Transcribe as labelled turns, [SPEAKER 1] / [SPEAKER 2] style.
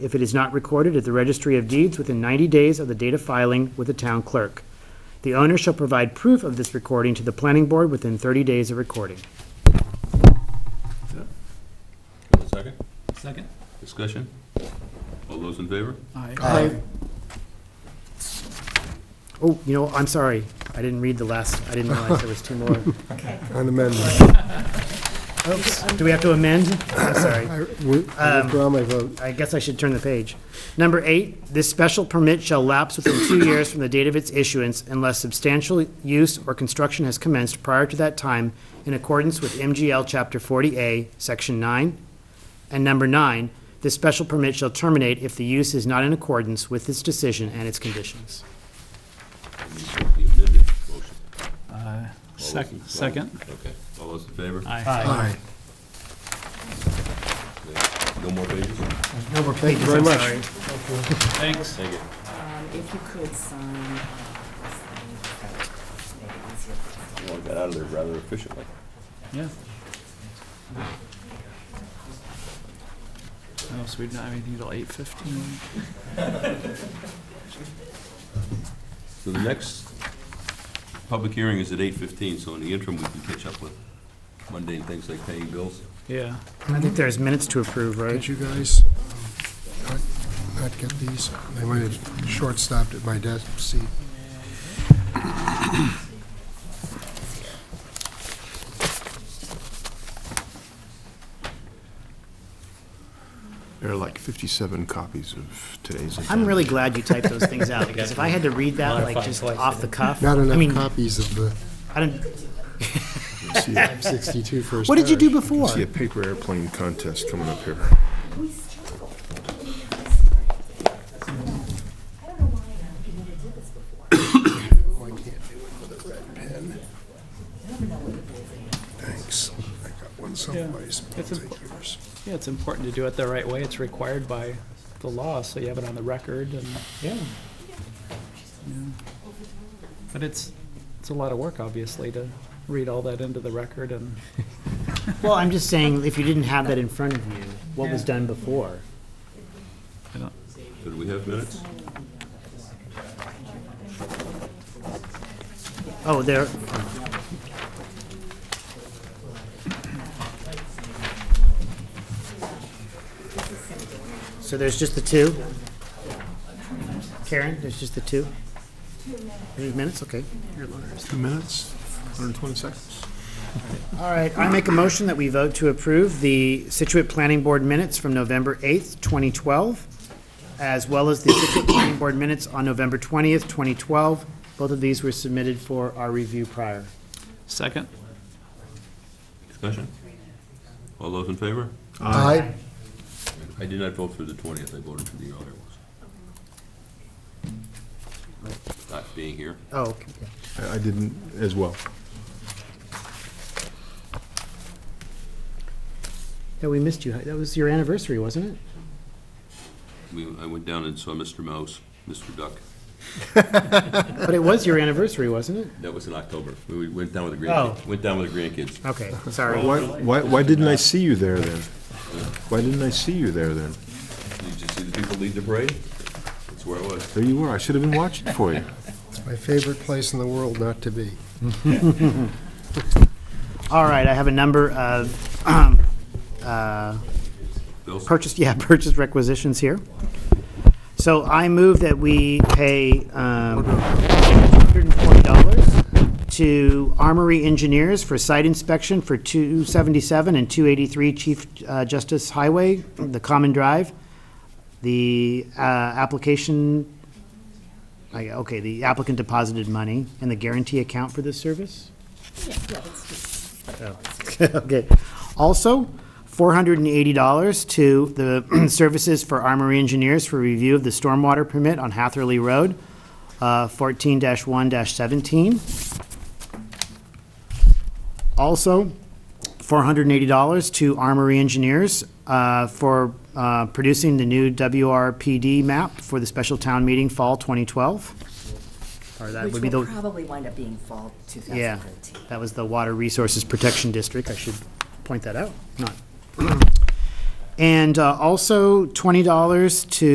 [SPEAKER 1] if it is not recorded at the registry of deeds within 90 days of the date of filing with the town clerk. The owner shall provide proof of this recording to the planning board within 30 days of recording.
[SPEAKER 2] One second.
[SPEAKER 3] Second?
[SPEAKER 2] Discussion? All those in favor?
[SPEAKER 3] Aye.
[SPEAKER 1] Oh, you know, I'm sorry, I didn't read the last, I didn't realize there was two more.
[SPEAKER 4] An amendment.
[SPEAKER 1] Oops, do we have to amend? I'm sorry.
[SPEAKER 4] I wi- I
[SPEAKER 1] Um,
[SPEAKER 4] withdraw my vote.
[SPEAKER 1] I guess I should turn the page. Number eight, this special permit shall lapse within two years from the date of its issuance unless substantial use or construction has commenced prior to that time in accordance with MGL Chapter 40A, Section 9. And number nine, this special permit shall terminate if the use is not in accordance with this decision and its conditions.
[SPEAKER 2] The amended motion.
[SPEAKER 3] Second, second?
[SPEAKER 2] Okay. All those in favor?
[SPEAKER 3] Aye.
[SPEAKER 4] Aye.
[SPEAKER 2] No more pages?
[SPEAKER 1] No more pages,
[SPEAKER 4] very much.
[SPEAKER 3] Thanks.
[SPEAKER 2] Thank you.
[SPEAKER 5] Um, If you could sign. uh, this thing, that would make it easier for us.
[SPEAKER 2] Well, I got out of there rather efficiently.
[SPEAKER 3] Yeah. Oh, so we didn't have anything till eight fifteen?
[SPEAKER 2] So the next public hearing is at eight fifteen, so in the interim, we can catch up with mundane things like paying bills.
[SPEAKER 3] Yeah.
[SPEAKER 1] I think there's minutes to approve, right?
[SPEAKER 4] Did you guys um, not not get these? They might have short-stopped at my desk seat.
[SPEAKER 6] There are like 57 copies of today's.
[SPEAKER 1] I'm
[SPEAKER 6] agenda.
[SPEAKER 1] really glad you typed those things out because if I had to read that like just off the cuff, I
[SPEAKER 4] Not
[SPEAKER 1] mean,
[SPEAKER 4] enough copies of the
[SPEAKER 1] I don't,
[SPEAKER 6] See a-
[SPEAKER 4] 62 First
[SPEAKER 1] what did you do
[SPEAKER 4] Parish.
[SPEAKER 1] before?
[SPEAKER 6] See a paper airplane contest coming up here.
[SPEAKER 4] Oh, Thanks. I got one someplace. but
[SPEAKER 3] It's
[SPEAKER 4] I'll
[SPEAKER 3] a-
[SPEAKER 4] take yours.
[SPEAKER 3] Yeah, it's important to do it the right way. It's required by the law, so you have it on the record and, yeah. Yeah. But it's, it's a lot of work, obviously, to read all that into the record and,
[SPEAKER 1] Well, I'm just saying, if you didn't have that in front of you, what was
[SPEAKER 3] Yeah.
[SPEAKER 1] done before?
[SPEAKER 3] I don't,
[SPEAKER 2] So do we have minutes?
[SPEAKER 1] Oh, there, so there's just the two? Karen, there's just the two? Any minutes, okay.
[SPEAKER 6] Two minutes, 120 seconds.
[SPEAKER 1] All right, I make a motion that we vote to approve the Situate Planning Board minutes from November 8th, 2012, as well as the Situate Planning Board minutes on November 20th, 2012. Both of these were submitted for our review prior.
[SPEAKER 3] second?
[SPEAKER 2] Discussion? All those in favor?
[SPEAKER 4] Aye.
[SPEAKER 2] I did not vote for the twentieth, I voted for the earlier ones. Not being here.
[SPEAKER 1] Oh, okay.
[SPEAKER 6] I I didn't as well.
[SPEAKER 1] yeah, we missed you. That was your anniversary, wasn't it?
[SPEAKER 2] We, I went down and saw Mr. Mouse, Mr. Duck.
[SPEAKER 1] But it was your anniversary, wasn't it?
[SPEAKER 2] That was in October. We went down with the
[SPEAKER 1] Oh.
[SPEAKER 2] grandkids, went down with the grandkids.
[SPEAKER 1] Okay, sorry.
[SPEAKER 6] Why, why why didn't I see you there then? Why didn't I see you there then?
[SPEAKER 2] Did you see the people lead the parade? That's where I was.
[SPEAKER 6] There you were, I should have been watching for you.
[SPEAKER 4] It's my favorite place in the world not to be.
[SPEAKER 1] All right, I have a number of um, uh,
[SPEAKER 2] Bill's-
[SPEAKER 1] purchase, yeah, purchase requisitions here. So I move that we pay um, $140 to Armory Engineers for site inspection for 277 and 283 Chief uh, Justice Highway, the common drive. The uh, application, I- okay, the applicant deposited money in the guarantee account for this service?
[SPEAKER 5] Yeah, yeah, that's just.
[SPEAKER 1] Okay. Also, $480 to the Services for Armory Engineers for review of the stormwater permit on Hatherley Road, uh, 14-1-17. Also, $480 to Armory Engineers uh, for uh, producing the new WRPD map for the special town meeting fall 2012. Or that would be
[SPEAKER 5] Which
[SPEAKER 1] the.
[SPEAKER 5] will probably wind up being fall
[SPEAKER 1] Yeah,
[SPEAKER 5] 2013.
[SPEAKER 1] that was the Water Resources Protection District, I should point that out, not. And uh, also $20 to